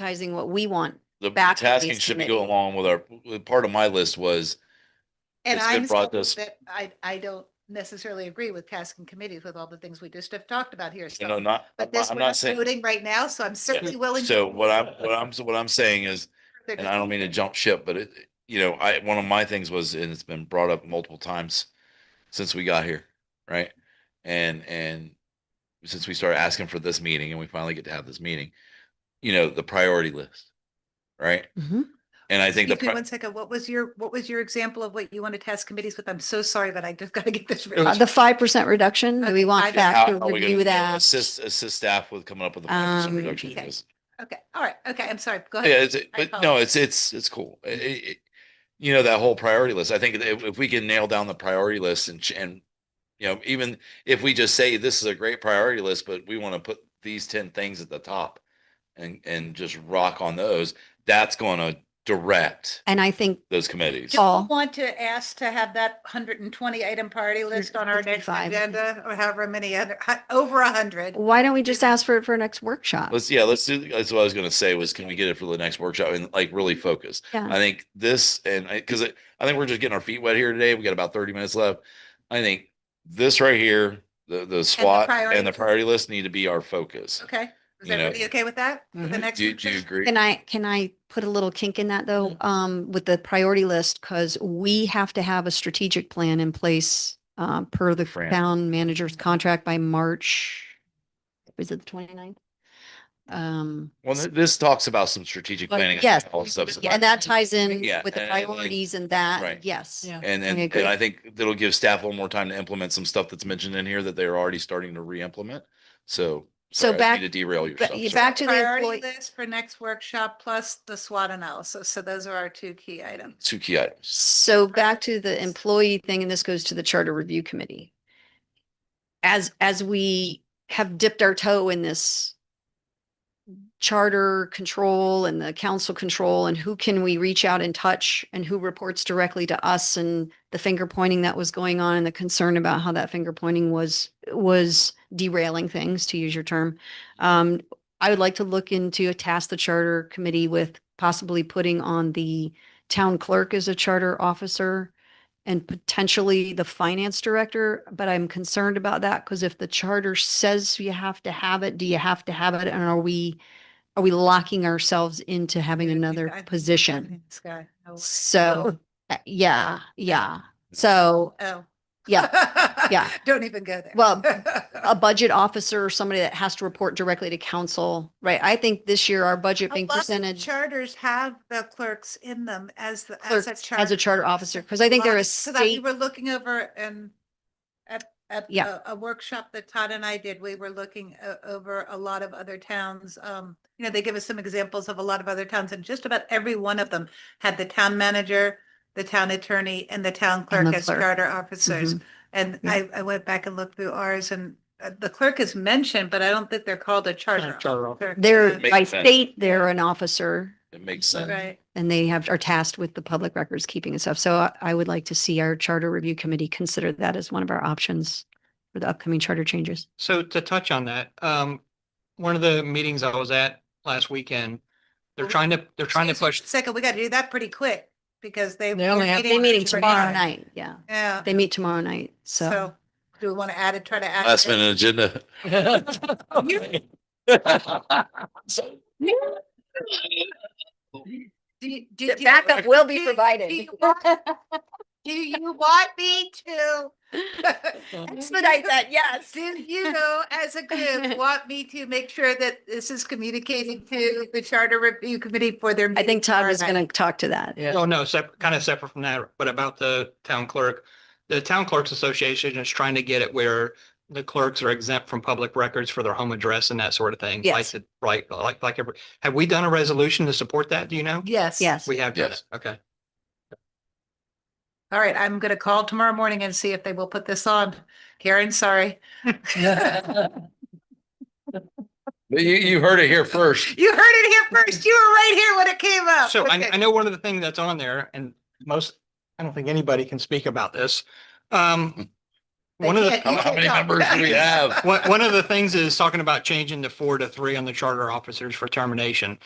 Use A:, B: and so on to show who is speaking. A: advertising what we want.
B: The
A: back to
B: tasking
A: these
B: should be
A: committee.
B: go along with our, part of my list was,
C: And
B: It's been
C: I'm
B: brought
C: still
B: this-
C: that I, I don't necessarily agree with tasking committees with all the things we just have talked about here.
B: you know,
C: So,
B: not, I'm
C: but this
B: not- I'm
C: we're
B: not
C: not
B: saying.
C: voting right now, so I'm certainly willing.
B: So what I'm, what I'm, so what I'm saying is,
C: They're
B: and
C: just-
B: I don't mean to jump ship, but it, you know, I, one of my things was, and it's been brought up multiple times since we got here, right? And, and since we started asking for this meeting and we finally get to have this meeting, you know, the priority list, right? And I think the.
C: Excuse me
B: pri-
C: One second, what was your, what was your example of what you want to task committees with? I'm so sorry, but I just gotta get this.
A: Uh,
C: written.
A: The five percent reduction, do we
C: Okay,
A: want
C: five-
A: back
B: how-
A: to
B: how are we gonna,
A: review
B: you know,
A: that?
B: Assist, assist staff with coming up with a plan for
A: Um,
B: some reduction.
C: okay.
B: list.
C: Okay, all right, okay, I'm sorry, go
B: Oh, Yeah,
C: ahead.
B: it's,
C: I
B: but no,
C: apologize.
B: it's, it's, it's cool. I- I- I- you know, that whole priority list, I think if, if we can nail down the priority list and, ch- and, you know, even if we just say this is a great priority list, but we want to put these ten things at the top and, and just rock on those, that's going to direct
A: And I think
B: those committees.
A: Just- all.
C: Want to ask to have that hundred and twenty item priority list on our next
A: 155.
C: agenda or however many, other- hu- over a hundred.
A: Why don't we just ask for it for our next workshop?
B: Let's, yeah, let's do, that's what I was gonna say was can we get it for the next workshop and like really focus?
A: Yeah.
B: I think this and I, cause it- I think we're just getting our feet wet here today. We got about thirty minutes left. I think this right here, the, the SWAT and the
C: priorities.
B: priority list need to be our focus.
C: Okay,
B: You
C: is
B: know.
C: everybody okay with that? With The next.
B: Do, do you
C: workshop?
B: agree?
A: Can I, can I put a little kink in that though, um, with the priority list? Cause we have to have a strategic plan in place, um, per the
B: Fran.
A: town manager's contract by March. Is it the 29th? Um,
B: Well, th- this talks about some strategic
A: But
B: planning. and
A: yes,
B: all stuff.
A: yeah, and that ties in
B: Yeah,
A: with the
B: and I think-
A: priorities and that,
B: right.
A: yes.
D: Yeah.
B: And, and,
A: agree.
B: and I think that'll give staff a little more time to implement some stuff that's mentioned in here that they're already starting to re-implement. So.
A: So
B: sorry, I didn't
A: back-
B: mean To derail
A: But
B: yourself.
A: you-
B: sorry.
A: back to the
C: Priority
A: employee.
C: list for next workshop plus the SWOT analysis. So those are our two key items.
B: Two key items.
A: So back to the employee thing, and this goes to the charter review committee. As, as we have dipped our toe in this charter control and the council control and who can we reach out and touch and who reports directly to us and the finger pointing that was going on and the concern about how that finger pointing was, was derailing things, to use your term. Um, I would like to look into a task the charter committee with possibly putting on the town clerk as a charter officer and potentially the finance director, but I'm concerned about that because if the charter says you have to have it, do you have to have it? And are we, are we locking ourselves into having
C: Yeah, I think-
A: another
C: I think-
A: position?
C: Sky. Oh,
A: So, uh, yeah, yeah. So
C: Oh.
A: Yeah, yeah.
C: Don't even go there.
A: Well, a budget officer or somebody that has to report directly to council, right? I think this year our budget
C: A
A: being
C: lot of
A: presented.
C: Charters have the clerks in them as the, as a
A: clerks
C: charter.
A: as a charter officer, because I think they're a
C: So that we
A: state,
C: were looking over and at, at
A: Yeah.
C: a- a workshop that Todd and I did, we were looking o- over a lot of other towns. Um, you know, they give us some examples of a lot of other towns and just about every one of them had the town manager, the town attorney and the town clerk
A: the
C: as
A: clerk. Mm-hmm.
C: charter officers. And
A: Yeah.
C: I, I went back and looked through ours and uh, the clerk is mentioned, but I don't think they're called a charter.
D: charter
C: officer. Uh,
A: they're,
B: Makes
A: by
B: sense.
A: state, they're an officer.
B: It makes sense.
C: Right.
A: and they have, are tasked with the public records keeping and stuff. So I- I would like to see our charter review committee consider that as one of our options for the upcoming charter changes.
D: So to touch on that, um, one of the meetings I was at last weekend, they're
C: Well,
D: trying to, they're trying to
C: Excuse me
D: push,
C: a Second, we got to do that pretty quick because they.
D: They only
C: they're
D: have-
A: They meeting
C: pretty
A: tomorrow
C: soon.
A: night, yeah.
C: Yeah.
A: They meet tomorrow night, so.
C: So do we want to add it, try to add?
B: Last
C: it?
B: minute agenda.
C: Do you- do
A: will
C: you- do you- do you want-
A: Expedite
C: Do you want me to?
A: that, yes.
C: Do you, as a group, want me to make sure that this is communicating to the Charter Review Committee for their?
A: I think
C: meeting
A: Todd
C: tomorrow
A: was
C: night?
A: gonna talk to that.
D: oh no, separate, kind of separate from that, but about the town clerk. The Town Clerks Association is trying to get it where the clerks are exempt from public records for their home address and that sort of thing.
A: Yes.
D: Like, Right, like, like, every- have we done a resolution to support that? Do you know?
C: Yes.
A: Yes.
D: We have done it.
B: Yes.
D: Okay.
C: All right, I'm going to call tomorrow morning and see if they will put this on. Karen, sorry.
B: You, you heard it here first.
C: You heard it here first. You were right here when it came up.
D: So I,
C: Oh, Okay.
D: I know one of the things that's on there and most, I don't think anybody can speak about this. Um,
C: They
D: one of the,
C: can't-
B: How
C: you
B: how many
C: can't
B: members
C: talk.
B: do we have?
D: one, one of the things is talking about changing the four to three on the charter officers for termination.